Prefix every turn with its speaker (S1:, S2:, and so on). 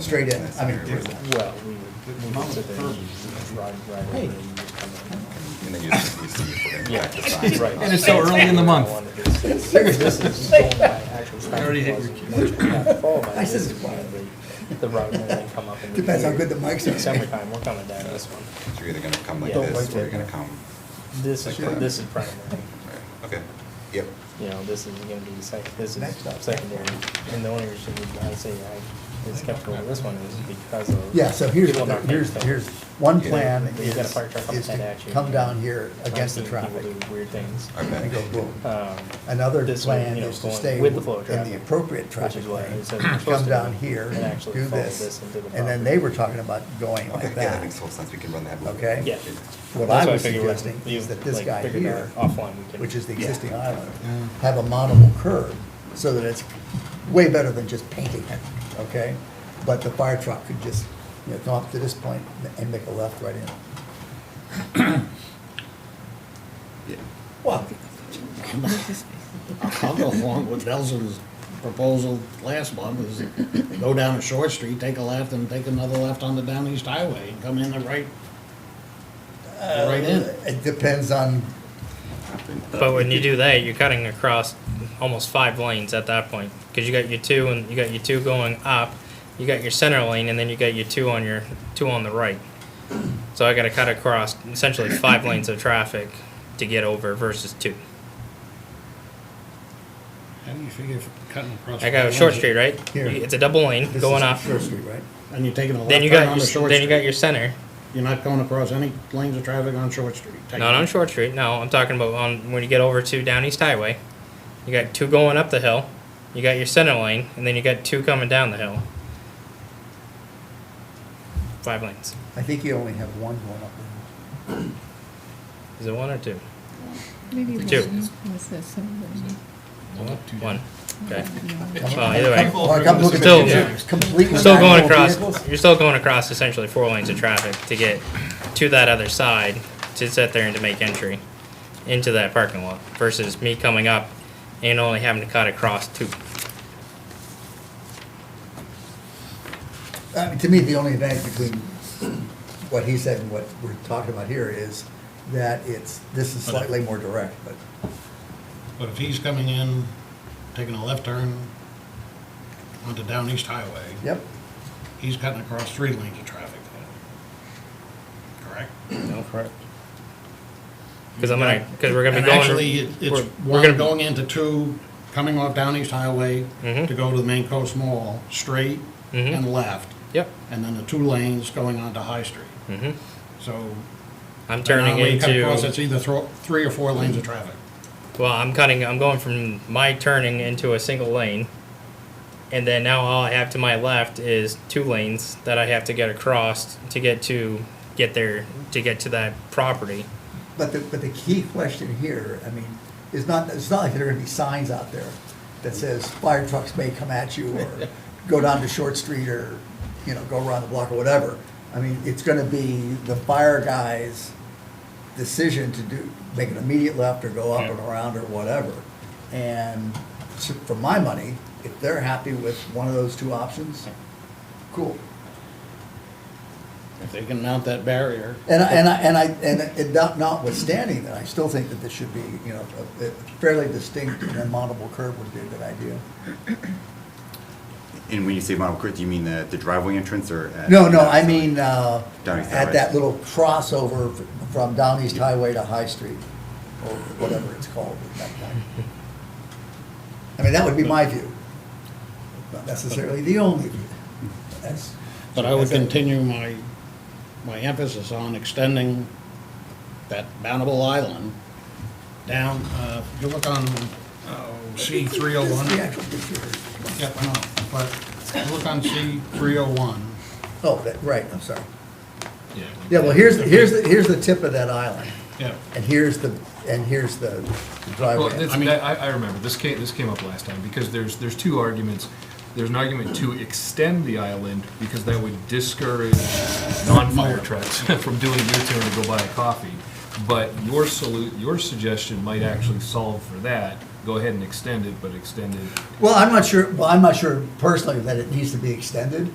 S1: straight in, I mean,
S2: Well, we would, we would sit there and drive right over and you come in.
S3: And then you, we see if we're gonna back the sign.
S2: Right.
S4: And it's so early in the month.
S2: This is going by actual
S4: Already
S2: traffic
S4: hit
S2: laws.
S4: your
S2: Once you have to follow by
S1: I said
S2: this,
S1: it's
S2: you
S1: quiet.
S2: have the route and then come up and.
S1: Depends how good the mics are.
S2: Summertime, we're coming down this one.
S3: You're either gonna come like
S2: Yeah.
S3: this, or you're gonna come,
S2: This is,
S3: Okay.
S2: this is primary.
S3: right, okay, yep.
S2: You know, this is gonna be second, this is
S1: Next up.
S2: secondary. And the only reason I say I, it's kept going this one is because of.
S1: yeah, so here's,
S2: people not
S1: here's,
S2: paying
S1: here's,
S2: attention.
S1: one
S3: Yeah.
S1: plan
S2: You got a
S1: is,
S2: fire truck
S1: is
S2: upside
S1: to
S2: down, you
S1: come
S2: know.
S1: down here against the
S2: I've seen people
S1: traffic.
S2: do Weird things.
S3: Okay.
S1: And go boom.
S2: Um,
S1: Another
S2: this way,
S1: plan
S2: you know,
S1: is to
S2: going
S1: stay
S2: with the flow of
S1: in the
S2: traffic,
S1: appropriate
S2: which
S1: traffic
S2: is what
S1: lane,
S2: it says we're supposed
S1: come
S2: to
S1: down
S2: do,
S1: here,
S2: and actually
S1: do
S2: follow
S1: this.
S2: into the
S1: And then
S2: property.
S1: they were talking about going
S3: Okay,
S1: like
S3: yeah, that
S1: that.
S3: makes total sense, we can run that. loop.
S1: Okay?
S2: Yeah.
S1: What
S2: That's
S1: I
S2: why
S1: was
S2: figured when
S1: suggesting
S2: you,
S1: is that this
S2: like,
S1: guy
S2: figured
S1: here,
S2: out offline we can-
S1: which is the
S2: Yeah.
S1: existing island, have a modelable curb so that it's way better than just painting it, okay? But the fire truck could just, you know, come up to this point and make a left right in.
S3: Yeah.
S1: Well,
S5: I'll go along with Nelson's proposal last month, is go down a short street, take a left, and take another left on the Down East Highway, and come in the right, right in.
S1: uh, it depends on,
S6: But when you do that, you're cutting across almost five lanes at that point, because you got your two and you got your two going up, you got your center lane, and then you got your two on your two on the right. So I got to cut across essentially five lanes of traffic to get over versus two.
S5: How do you figure cutting across?
S6: I got a short street, right?
S1: Here.
S6: It's a double lane
S1: this
S6: going
S1: is
S6: up.
S1: Short Street, right?
S5: And you're taking a
S6: Then
S5: left
S6: you
S5: turn
S6: got
S5: on the
S6: your
S5: short
S6: then you got
S5: street.
S6: your center.
S5: You're not going across any lanes of traffic on Short Street.
S6: Not on Short Street. No, I'm talking about on when you get over to Down East Highway. You got two going up the hill. You got your center lane, and then you got two coming down the hill. Five lanes.
S1: I think you only have one going up.
S6: Is it one or two?
S7: Maybe
S6: Two.
S7: one was this and then-
S6: One. Okay.
S1: Come
S6: Well, either way,
S1: Well, I come look at
S6: Still-
S1: the completely.
S6: you're still going
S1: manual
S6: across.
S1: vehicles.
S6: You're still going across essentially four lanes of traffic to get to that other side to sit there and to make entry into that parking lot versus me coming up and only having to cut across two.
S1: I mean, To me, the only advantage between what he said and what we're talking about here is that it's, this is slightly more direct, but
S5: But if he's coming in, taking a left turn onto Down East Highway,
S1: yep.
S5: he's cutting across three lanes of traffic then. Correct?
S6: No, correct. Because I'm gonna, because we're gonna be
S5: And
S6: going.
S5: actually, it- it's
S6: we're- we're
S5: one
S6: gonna-
S5: going into two, coming off Down East Highway
S6: Mhm.
S5: to go to the Main Coast Mall, straight
S6: Mhm.
S5: and left,
S6: Yep.
S5: and then the two lanes going onto High Street.
S6: hmm
S5: So.
S6: I'm turning
S5: now when you cut across,
S6: into.
S5: It's either thro- three or four lanes of traffic.
S6: Well, I'm cutting. I'm going from my turning into a single lane, and then now all I have to my left is two lanes that I have to get across to get to get there to get to that property.
S1: But the, but the key question here, I mean, is not, it's not like there are gonna be signs out there that says fire trucks may come at you or go down to Short Street or, you know, go around the block or whatever. I mean, it's gonna be the fire guy's decision to do, make an immediate left or go up and around or whatever. And so for my money, if they're happy with one of those two options, cool.
S5: If they can mount that barrier.
S1: And I, and I, and I, and it not- notwithstanding that, I still think that this should be, you know, a- a fairly distinct and then mountable curb would be a good idea.
S3: And when you say Model Court, do you mean the, the driveway entrance or? at-
S1: No, no, I mean, uh,
S3: Down East
S1: at
S3: Highway.
S1: that little crossover f- from Down East Highway to High Street, or whatever it's called at that time. I mean, that would be my view, not necessarily the only view. That's-
S5: But I would
S1: that's it.
S5: continue my, my emphasis on extending that mountable island down, uh, if you look on, oh, C three oh
S1: This is the
S5: one.
S1: actual picture.
S5: Yep, I know, but look on C three oh one.
S1: Oh, that, right, I'm sorry. Yeah, well, here's, here's, the here's the tip of that island.
S5: Yeah,
S1: And here's the, and here's the
S8: Well,
S1: driveway.
S8: that's,
S5: I mean-
S8: that, I, I remember, this came, this came up last time, because there's, there's two arguments. There's an argument to extend the island, because that would discourage non-fire trucks from doing a U-turn to go buy a coffee. But your salute, your suggestion might actually solve for that, go ahead and extend it, but extend it
S1: Well, I'm not sure, well, I'm not sure personally that it needs to be extended.